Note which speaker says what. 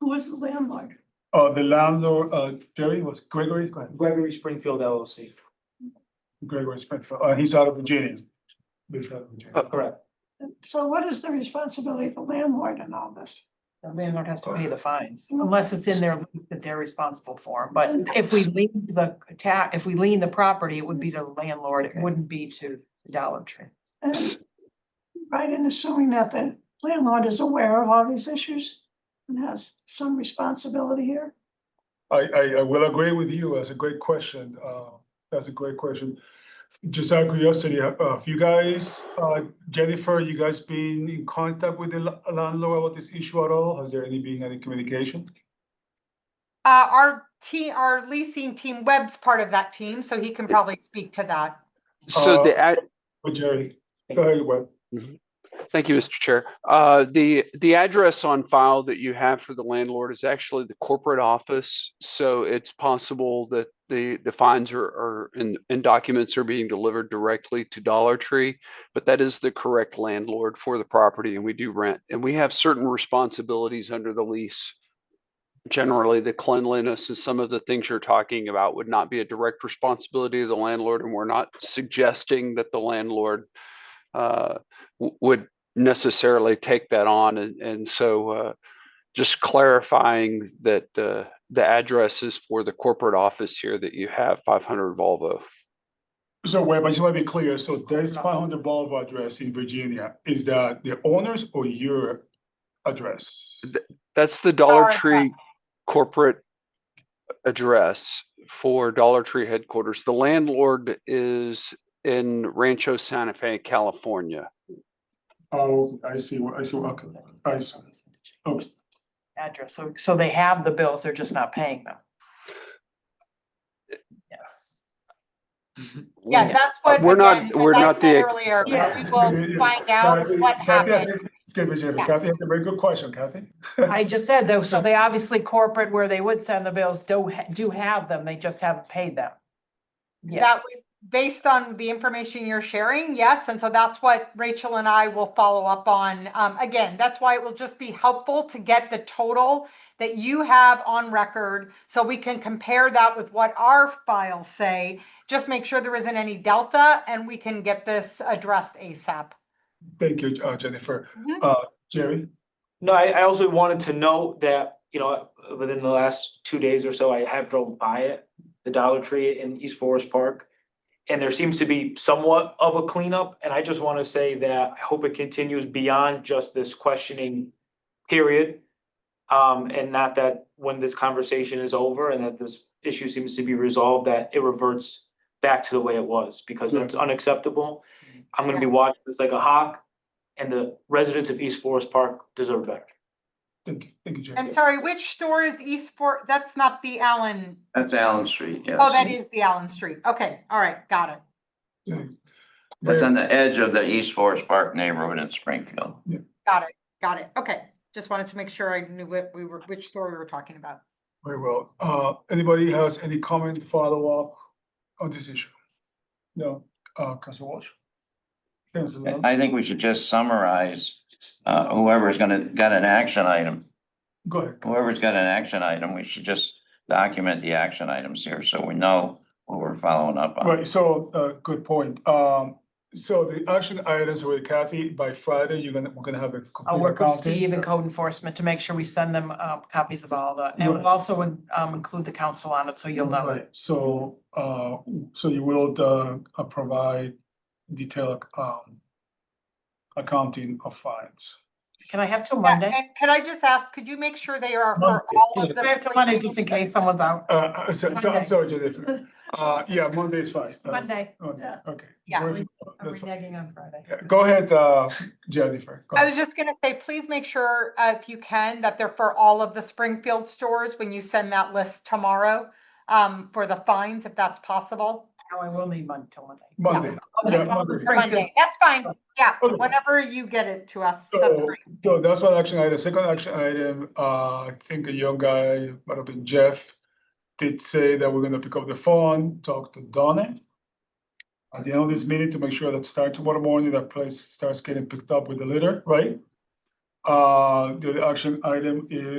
Speaker 1: Who was the landlord?
Speaker 2: Uh, the landlord, uh, Jerry was Gregory, go ahead.
Speaker 3: Gregory Springfield LLC,
Speaker 2: Gregory Springfield, uh, he's out of Virginia. Based out of Virginia.
Speaker 3: Uh, correct.
Speaker 1: So what is the responsibility of the landlord in all this?
Speaker 4: The landlord has to pay the fines, unless it's in their, lease that they're responsible for, but if we lean the ta, if we lean the property, it would be to the landlord, it wouldn't be to Dollar Tree.
Speaker 1: And Right, and assuming that the landlord is aware of all these issues and has some responsibility here?
Speaker 2: I, I, I will agree with you, that's a great question, uh, that's a great question. Just out of curiosity, uh, have you guys, uh, Jennifer, you guys been in contact with the la- landlord about this issue at all? Has there any been any communication?
Speaker 5: Uh, our team, our leasing team, Webb's part of that team, so he can probably speak to that.
Speaker 6: Oh,
Speaker 2: Uh,
Speaker 6: So the, ad-
Speaker 2: With Jerry, go ahead, Webb.
Speaker 6: thank you, Mr. Chair. Uh, the, the address on file that you have for the landlord is actually the corporate office. So it's possible that the, the fines are, are, and, and documents are being delivered directly to Dollar Tree. But that is the correct landlord for the property and we do rent. And we have certain responsibilities under the lease. Generally, the cleanliness and some of the things you're talking about would not be a direct responsibility of the landlord. And we're not suggesting that the landlord uh, w- would necessarily take that on. And, and so uh, just clarifying that uh, the address is for the corporate office here that you have 500 Volvo.
Speaker 2: So Webb, I just wanna be clear, so there's five hundred Boulevard address in Virginia, is that the owner's or your address?
Speaker 6: That's the Dollar
Speaker 5: Dollar
Speaker 6: Tree corporate address for Dollar Tree headquarters. The landlord is in Rancho Santa Fe, California.
Speaker 2: Oh, I see, I see, okay, I see. Okay.
Speaker 4: Address, so, so they have the bills, they're just not paying them. Yes.
Speaker 5: Yeah,
Speaker 4: Yeah.
Speaker 5: that's what.
Speaker 6: Uh, we're not-
Speaker 5: again,
Speaker 6: we're
Speaker 5: as I
Speaker 6: not the
Speaker 5: said
Speaker 6: ex-
Speaker 5: Earlier, we
Speaker 4: Yeah.
Speaker 5: will find out what
Speaker 2: Kathy, I
Speaker 5: happened.
Speaker 2: think- Excuse me, Jennifer, Kathy, that's a very good question, Kathy.
Speaker 4: I just said though, so they obviously corporate where they would send the bills, do, ha- do have them, they just haven't paid them.
Speaker 5: That
Speaker 4: Yes,
Speaker 5: we, based on the information you're sharing, yes, and so that's what Rachel and I will follow up on. Um, again, that's why it will just be helpful to get the total that you have on record, so we can compare that with what our files say. Just make sure there isn't any delta, and we can get this addressed ASAP.
Speaker 2: Thank you, uh, Jennifer.
Speaker 5: Mhm.
Speaker 2: Uh, Jerry,
Speaker 3: No, I, I also wanted to note that, you know, within the last two days or so, I have drove by it, the Dollar Tree in East Forest Park. And there seems to be somewhat of a cleanup, and I just want to say that I hope it continues beyond just this questioning period. Um, and not that when this conversation is over and that this issue seems to be resolved, that it reverts back to the way it was, because that's unacceptable. I'm gonna be watching this like a hawk, and the residents of East Forest Park deserve better.
Speaker 2: thank you, thank you, Jerry.
Speaker 5: And sorry, which store is East For, that's not the Allen,
Speaker 7: That's Allen Street, yes.
Speaker 5: oh, that is the Allen Street, okay, all right, got it.
Speaker 2: Very-
Speaker 7: That's on the edge of the East Forest Park neighborhood in Springfield.
Speaker 5: Got it, got it, okay. Just wanted to make sure I knew what we were, which story we were talking about.
Speaker 2: Very well. Uh, anybody has any comment, follow-up on this issue? No, uh, Council Walsh? Council Lund?
Speaker 7: I think we should just summarize, uh, whoever's gonna, got an action item,
Speaker 2: Go ahead.
Speaker 7: whoever's got an action item, we should just document the action items here, so we know what we're following up on.
Speaker 2: Right, so, uh, good point. Um, so the action items with Kathy, by Friday, you're gonna, we're gonna have a
Speaker 4: I'll
Speaker 2: complete
Speaker 4: work with
Speaker 2: accounting.
Speaker 4: Steve and code enforcement to make sure we send them, um, copies of all the, and
Speaker 2: Right.
Speaker 4: we'll also, um, include the council on it, so you'll know.
Speaker 2: Right, so, uh, so you will, uh, uh, provide detailed, um, accounting of fines.
Speaker 4: Can I have till
Speaker 5: Yeah,
Speaker 4: Monday?
Speaker 5: and could I just ask, could you make sure they are
Speaker 2: Monday,
Speaker 5: for all of
Speaker 4: I have till
Speaker 5: the?
Speaker 4: Monday, just in case someone's out.
Speaker 2: Uh, uh, so, so I'm
Speaker 4: Monday.
Speaker 2: sorry, Jennifer. Uh, yeah, Monday is fine. Uh,
Speaker 4: Monday.
Speaker 2: Okay,
Speaker 1: Yeah.
Speaker 2: okay.
Speaker 5: Yeah.
Speaker 2: Very-
Speaker 4: I'm
Speaker 2: that's fine.
Speaker 4: reneging on Friday.
Speaker 2: Yeah, Go ahead, uh, Jennifer. Go
Speaker 5: I
Speaker 2: ahead.
Speaker 5: was just gonna say, please make sure, uh, if you can, that they're for all of the Springfield stores when you send that list tomorrow. Um, for the fines, if that's possible.
Speaker 4: Now I will need Monday till Monday.
Speaker 2: Monday.
Speaker 4: Okay,
Speaker 2: Yeah,
Speaker 4: I'll
Speaker 2: Monday.
Speaker 4: just
Speaker 5: For
Speaker 4: bring it.
Speaker 5: Monday, that's fine, yeah,
Speaker 2: Okay.
Speaker 5: whenever you get it to us, that's
Speaker 2: So,
Speaker 5: great.
Speaker 2: so that's one action item. Second action item, uh, I think a young guy, might have been Jeff, did say that we're gonna pick up the phone, talk to Donna. At the end of this meeting to make sure that start tomorrow morning, that place starts getting picked up with the litter, right? Uh, the other action item is